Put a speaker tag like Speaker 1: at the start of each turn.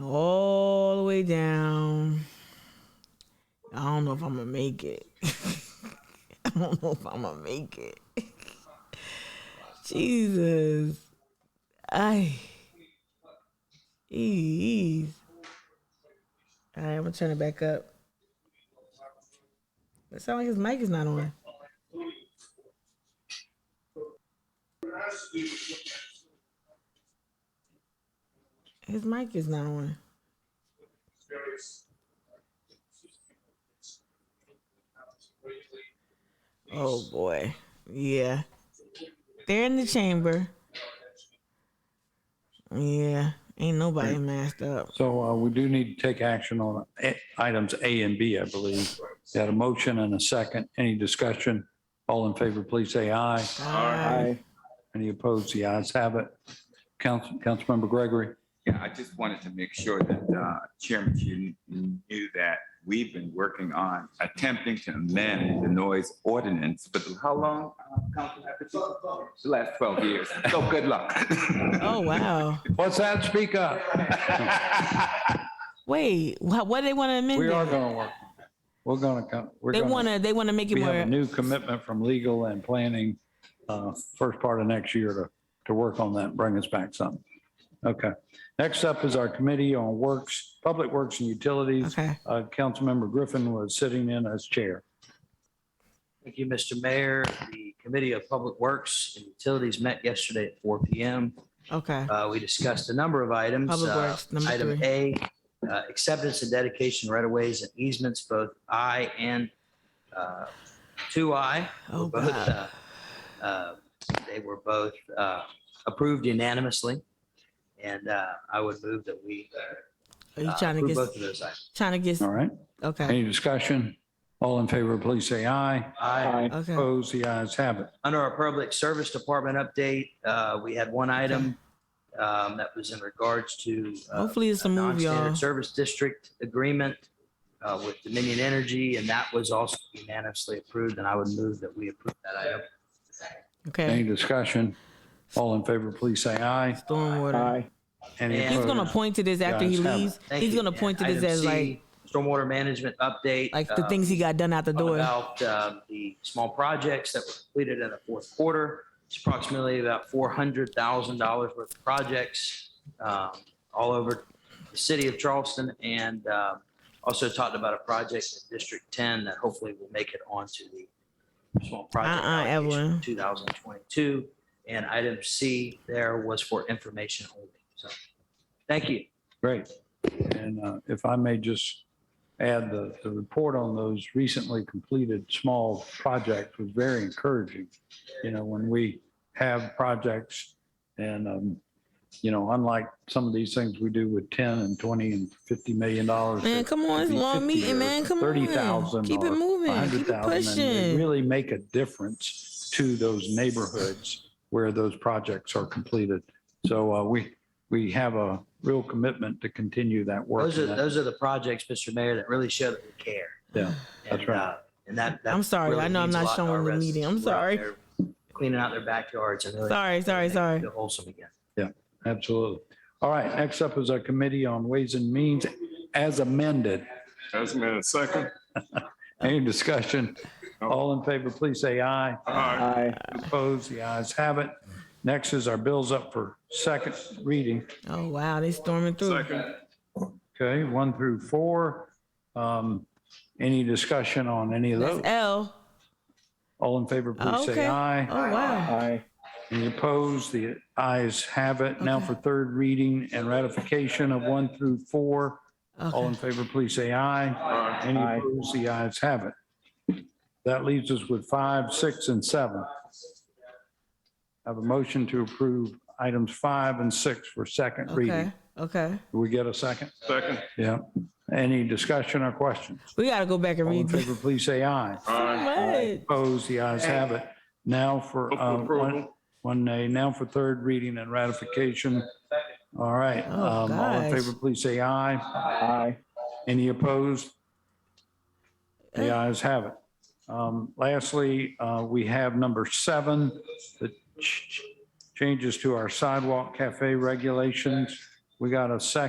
Speaker 1: all the way down. I don't know if I'm gonna make it. I don't know if I'm gonna make it. Jesus, I. Ease. All right, I'm gonna turn it back up. It sounds like his mic is not on. His mic is not on. Oh boy. Yeah. They're in the chamber. Yeah. Ain't nobody masked up.
Speaker 2: So uh, we do need to take action on A- items A and B, I believe. Got a motion and a second. Any discussion? All in favor, please say aye.
Speaker 1: Alright.
Speaker 2: Any opposed? The ayes have it. Council, Councilmember Gregory,
Speaker 3: Yeah, I just wanted to make sure that uh, Chairman, you knew that we've been working on attempting to amend the noise ordinance, but how long? uh, Council, after two- The last 12 years. So good luck.
Speaker 1: Oh wow.
Speaker 2: what's that? Speak up.
Speaker 1: Wait. What, what they want to amend?
Speaker 2: We
Speaker 1: it?
Speaker 2: are going to work. We're going to come, we're
Speaker 1: they
Speaker 2: going
Speaker 1: want
Speaker 2: to,
Speaker 1: to. They want to make it
Speaker 2: we have
Speaker 1: more.
Speaker 2: a new commitment from legal and planning, uh, first part of next year to, to work on that, and bring us back something. Okay. Next up is our Committee on Works, Public Works and Utilities.
Speaker 1: okay.
Speaker 2: Uh, Councilmember Griffin was sitting in as chair.
Speaker 4: Thank you, Mr. Mayor. The Committee of Public Works and Utilities met yesterday at four PM.
Speaker 1: Okay.
Speaker 4: Uh, We discussed a number of items.
Speaker 1: Public
Speaker 4: Uh,
Speaker 1: Works, number
Speaker 4: Item
Speaker 1: three.
Speaker 4: A, uh, acceptance and dedication right of ways and easements, both I and uh, two I. uh,
Speaker 1: Oh, God.
Speaker 4: They were both uh, approved unanimously. And uh, I would move that we
Speaker 1: Are you
Speaker 4: uh,
Speaker 1: trying to
Speaker 4: approve
Speaker 1: get?
Speaker 4: both of those items.
Speaker 1: Trying to get?
Speaker 2: All right.
Speaker 1: Okay.
Speaker 2: Any discussion? All in favor, please say aye.
Speaker 4: Aye.
Speaker 1: Okay.
Speaker 2: Opposed, the ayes have it.
Speaker 4: Under our Public Service Department update, uh, we had one item um, that was in regards to uh,
Speaker 1: Hopefully it's a
Speaker 4: a
Speaker 1: move, y'all.
Speaker 4: non-standard service district agreement uh, with Dominion Energy, and that was also unanimously approved, and I would move that we approve that item.
Speaker 2: Any
Speaker 1: Okay.
Speaker 2: discussion? All in favor, please say aye.
Speaker 1: Stormwater.
Speaker 2: Any
Speaker 4: Aye.
Speaker 1: He's gonna
Speaker 2: opposed?
Speaker 1: point to this after he
Speaker 2: Guys, have-
Speaker 1: leaves.
Speaker 4: Thank
Speaker 1: He's
Speaker 4: you.
Speaker 1: gonna point to
Speaker 4: And
Speaker 1: this
Speaker 4: item
Speaker 1: as
Speaker 4: C,
Speaker 1: like
Speaker 4: Stormwater management update.
Speaker 1: like the
Speaker 4: uh,
Speaker 1: things he
Speaker 2: um,
Speaker 1: got done out the door.
Speaker 4: About um, the small projects that were completed in the fourth quarter. It's approximately about $400,000 worth of projects um, all over the city of Charleston. And um, also talked about a project in District 10 that hopefully will make it onto the small project
Speaker 1: Uh-uh,
Speaker 4: allocation
Speaker 1: Evelyn.
Speaker 4: in 2022. And item C there was for information only. So, thank you.
Speaker 2: Great. And uh, if I may just add, the, the report on those recently completed small projects was very encouraging. You know, when we have projects and, um, you know, unlike some of these things we do with 10 and 20 and 50 million dollars.
Speaker 1: Man, come on, it's a
Speaker 2: be
Speaker 1: long
Speaker 2: 50
Speaker 1: meeting,
Speaker 2: or
Speaker 1: man. Come on.
Speaker 2: 30,000
Speaker 1: Keep it
Speaker 2: or
Speaker 1: moving. Keep it
Speaker 2: 100,000 and they
Speaker 1: pushing.
Speaker 2: really make a difference to those neighborhoods where those projects are completed. So uh, we, we have a real commitment to continue that work.
Speaker 4: Those are,
Speaker 2: and that-
Speaker 4: those are the projects, Mr. Mayor, that really show that we care.
Speaker 2: Yeah, that's
Speaker 4: And,
Speaker 2: right.
Speaker 4: uh, And that. that
Speaker 1: I'm sorry.
Speaker 4: really
Speaker 1: I know I'm
Speaker 4: means a
Speaker 1: not
Speaker 4: lot to our
Speaker 1: showing the
Speaker 4: residents
Speaker 1: meeting. I'm
Speaker 4: who are out
Speaker 1: sorry.
Speaker 4: there Cleaning out their backyards and really.
Speaker 1: Sorry, sorry,
Speaker 4: making
Speaker 1: sorry.
Speaker 4: it feel Wholesome again.
Speaker 2: Absolutely. All right, next up is our Committee on Ways and Means as amended.
Speaker 5: As amended, second.
Speaker 2: Any discussion? All in favor, please say aye.
Speaker 5: Aye.
Speaker 2: Opposed, the ayes have it. Next is our bills up for second reading.
Speaker 1: Oh wow, they storming through.
Speaker 5: Second.
Speaker 2: Okay, one through four. Um, Any discussion on any of
Speaker 1: That's
Speaker 2: those?
Speaker 1: L.
Speaker 2: All in favor, please
Speaker 1: Okay.
Speaker 2: say
Speaker 1: Oh
Speaker 2: aye.
Speaker 1: wow.
Speaker 2: Any opposed? The ayes have it. Now
Speaker 1: Okay.
Speaker 2: for third reading and ratification of one through four. All in
Speaker 1: Okay.
Speaker 2: favor, please say aye.
Speaker 5: Aye.
Speaker 2: Any opposed, the ayes have it. That leaves us with five, six, and seven. I have a motion to approve items five and six for second
Speaker 1: Okay.
Speaker 2: reading.
Speaker 1: Okay.
Speaker 2: Do we get a second?
Speaker 5: Second.
Speaker 2: Yeah. Any discussion or questions?
Speaker 1: We gotta go back and
Speaker 2: All in
Speaker 1: read this.
Speaker 2: favor, please say aye.
Speaker 5: Aye.
Speaker 1: What?
Speaker 2: Opposed, the ayes have it. Now for,
Speaker 5: Move for
Speaker 2: uh, one,
Speaker 5: approval.
Speaker 2: one nay, now for third reading and ratification. All right,
Speaker 1: Oh,
Speaker 2: um, all in
Speaker 1: gosh.
Speaker 2: favor, please say aye. Aye. Any opposed? The
Speaker 1: Uh.
Speaker 2: ayes have it. Um, lastly, uh, we have number seven, the ch- ch- changes to our sidewalk cafe regulations. We got a second.